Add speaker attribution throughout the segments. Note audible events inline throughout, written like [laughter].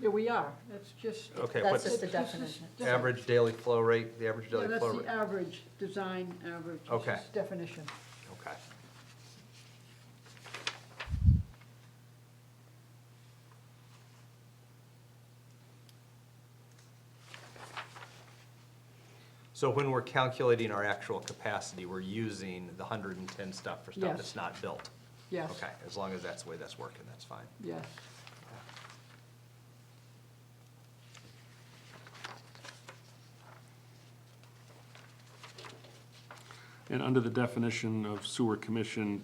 Speaker 1: Yeah, we are, that's just.
Speaker 2: Okay,
Speaker 3: That's
Speaker 2: what's
Speaker 3: just the
Speaker 1: It's just-
Speaker 3: definition.
Speaker 1: it's just-
Speaker 2: Oh, average daily flow rate, the average
Speaker 1: Yeah,
Speaker 2: daily flow
Speaker 1: that's
Speaker 2: rate?
Speaker 1: the average, design average. it's
Speaker 2: Okay.
Speaker 1: just Definition.
Speaker 2: Okay. So when we're calculating our actual capacity, we're using the hundred and ten stuff for stuff
Speaker 1: Yes.
Speaker 2: that's not built?
Speaker 1: Yes.
Speaker 2: Okay, as long as that's the way that's working, that's fine.
Speaker 1: Yes.
Speaker 4: And under the definition of sewer commission,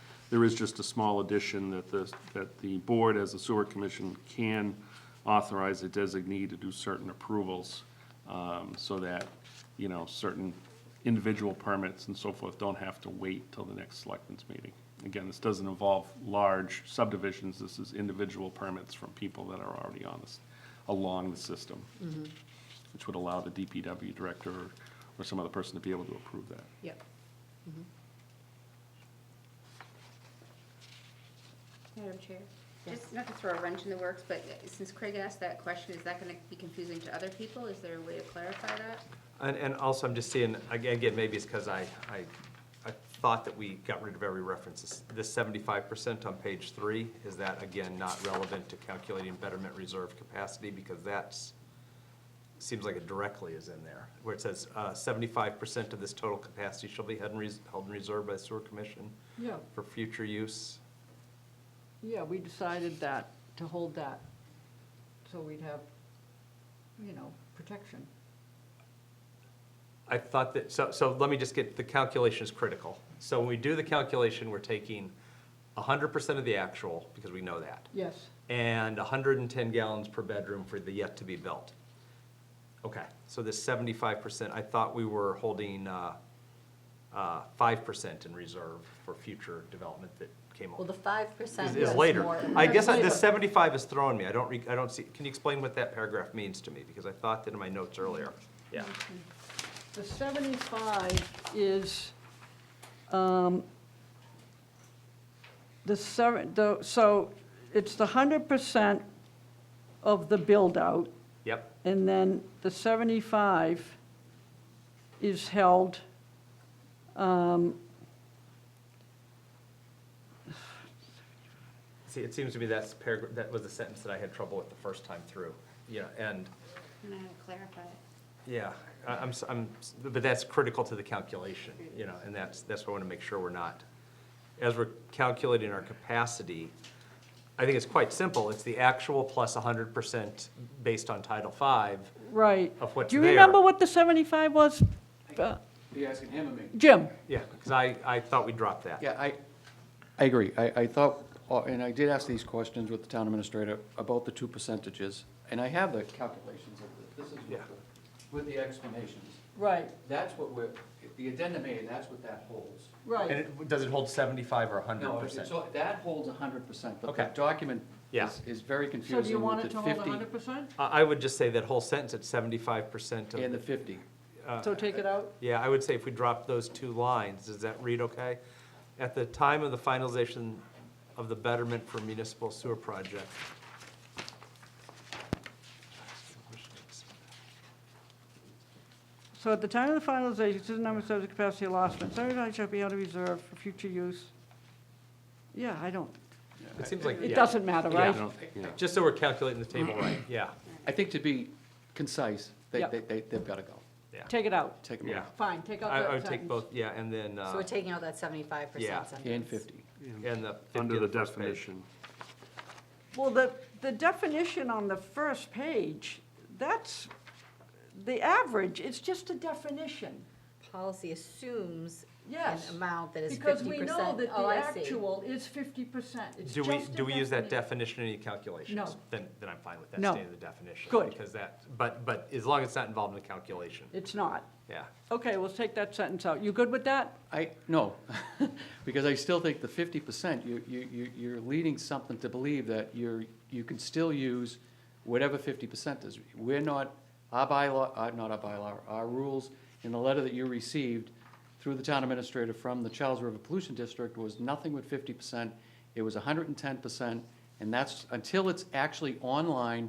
Speaker 4: [clears throat] there is just a small addition that the, that the board as a sewer commission can authorize a designee to do certain approvals, um, so that, you know, certain individual permits and so forth don't have to wait till the next selectmen's meeting. Again, this doesn't involve large subdivisions, this is individual permits from people that are already on this, along the system. Which would allow the DPW director or- or some other person to be able to approve that.
Speaker 3: Yep.
Speaker 5: Madam Chair, just not to throw a wrench in the works, but since Craig asked that question, is that gonna be confusing to other people? Is there a way to clarify that?
Speaker 2: And, and also, I'm just seeing, again, again, maybe it's because I, I, I thought that we got rid of every reference. The seventy-five percent on page three, is that again not relevant to calculating betterment reserve capacity? Because that's, seems like it directly is in there, where it says, uh, seventy-five percent of this total capacity shall be held in, res- held in reserve by the sewer commission
Speaker 1: Yeah,
Speaker 2: for future use.
Speaker 1: yeah, we decided that, to hold that, so we'd have, you know, protection.
Speaker 2: I thought that, so, so let me just get, the calculation is critical. So when we do the calculation, we're taking hundred percent of the actual, because we know that.
Speaker 1: Yes,
Speaker 2: and 110 gallons per bedroom for the yet-to-be-built. Okay, so this 75%, I thought we were holding uh, uh, 5% in reserve for future development that came
Speaker 3: Well,
Speaker 2: up.
Speaker 3: the five percent
Speaker 2: Is
Speaker 3: is
Speaker 2: is
Speaker 3: more.
Speaker 2: later. Uh, I guess I- the
Speaker 1: Later.
Speaker 2: 75 is throwing me. I don't, re- I don't see, can you explain what that paragraph means to me? Because I thought that in my notes earlier. Yeah.
Speaker 3: Mm-hmm.
Speaker 1: the seventy-five is, um, the seven, the, so it's the hundred percent of the build-out,
Speaker 2: Yep,
Speaker 1: and then the seventy-five is held, um,
Speaker 2: see, it seems to me that's paragraph, that was the sentence that I had trouble with the first time through. Yeah, and
Speaker 5: And I had to clarify it.
Speaker 2: Yeah, I- I'm, s- I'm, s- but that's critical to the calculation, you know, and that's, that's what I want to make sure we're not. As we're calculating our capacity, I think it's quite simple. It's the actual plus hundred percent based on Title V
Speaker 1: right.
Speaker 2: of what's
Speaker 1: Do
Speaker 2: there.
Speaker 1: you remember what the seventy-five was? Uh,
Speaker 6: Be asking him or me?
Speaker 1: Jim?
Speaker 2: Yeah, because I, I thought we dropped that.
Speaker 6: Yeah, I, I agree. I, I thought, uh, and I did ask these questions with the town administrator about the two percentages, and I have the calculations of the, this is
Speaker 2: Yeah.
Speaker 6: with the, with the explanations.
Speaker 1: Right,
Speaker 6: That's what we're, the addendum A, that's what that holds.
Speaker 2: And
Speaker 1: right.
Speaker 2: it, does it hold seventy-five or hundred
Speaker 6: No, it's-
Speaker 2: percent?
Speaker 6: so that holds hundred percent, but the
Speaker 2: Okay.
Speaker 6: document
Speaker 2: Yeah.
Speaker 6: is, is very
Speaker 1: So do you
Speaker 6: confusing
Speaker 1: want
Speaker 6: with the
Speaker 1: it to hold
Speaker 6: fifty
Speaker 1: hundred percent?
Speaker 2: I, I would just say that whole sentence at seventy-five percent
Speaker 6: and the
Speaker 2: of,
Speaker 6: fifty.
Speaker 2: Uh,
Speaker 1: So take it out?
Speaker 2: yeah, I would say if we drop those two lines, does that read okay? At the time of the finalization of the betterment for municipal sewer project,
Speaker 1: So at the time of the finalization, this is number seven, capacity allotment, seventy-five shall be out of reserve for future use. Yeah, I don't,
Speaker 2: It seems like,
Speaker 1: it
Speaker 2: yeah.
Speaker 1: doesn't matter, right?
Speaker 4: You know, yeah.
Speaker 2: Just so we're calculating the table right, yeah,
Speaker 6: I think to be concise, they,
Speaker 1: Yeah.
Speaker 6: they, they- they've gotta go.
Speaker 2: yeah.
Speaker 1: Take it out.
Speaker 4: [clears throat]
Speaker 6: Take them
Speaker 2: Yeah,
Speaker 6: out.
Speaker 1: Fine, take out
Speaker 2: I,
Speaker 1: that
Speaker 2: I would
Speaker 1: sentence.
Speaker 2: take both, yeah, and then,
Speaker 3: So we're
Speaker 2: uh,
Speaker 3: taking out that seventy-five
Speaker 2: Yeah.
Speaker 3: percent sentence.
Speaker 6: And fifty.
Speaker 2: and the. 50
Speaker 4: Under
Speaker 2: on
Speaker 4: the
Speaker 2: first page.
Speaker 4: definition,
Speaker 1: Well, the, the definition on the first page, that's the average, it's just a definition.
Speaker 3: Policy assumes an
Speaker 1: Yes,
Speaker 3: amount that is fifty
Speaker 1: because
Speaker 3: percent. Oh,
Speaker 1: we know that the actual is fifty percent, it's
Speaker 2: Do
Speaker 1: just
Speaker 2: we,
Speaker 1: a
Speaker 2: do we use that
Speaker 1: definition.
Speaker 2: definition in any calculations?
Speaker 1: No.
Speaker 2: Then, then I'm fine with that,
Speaker 1: No.
Speaker 2: staying in the definition.
Speaker 1: Good.
Speaker 2: Because that, but, but as long as it's not involved in the calculation,
Speaker 1: It's not.
Speaker 2: yeah.
Speaker 1: Okay, we'll take that sentence out. You good with that?
Speaker 6: I, no, [laughs] because I still think the fifty percent, you, you, you- you're leading something to believe that you're, you can still use whatever fifty percent is. We're not, our bylaw, uh, not our bylaw, our rules in the letter that you received through the town administrator from the Charles River Pollution District was nothing with fifty percent. It was hundred and ten percent And that's, until it's actually online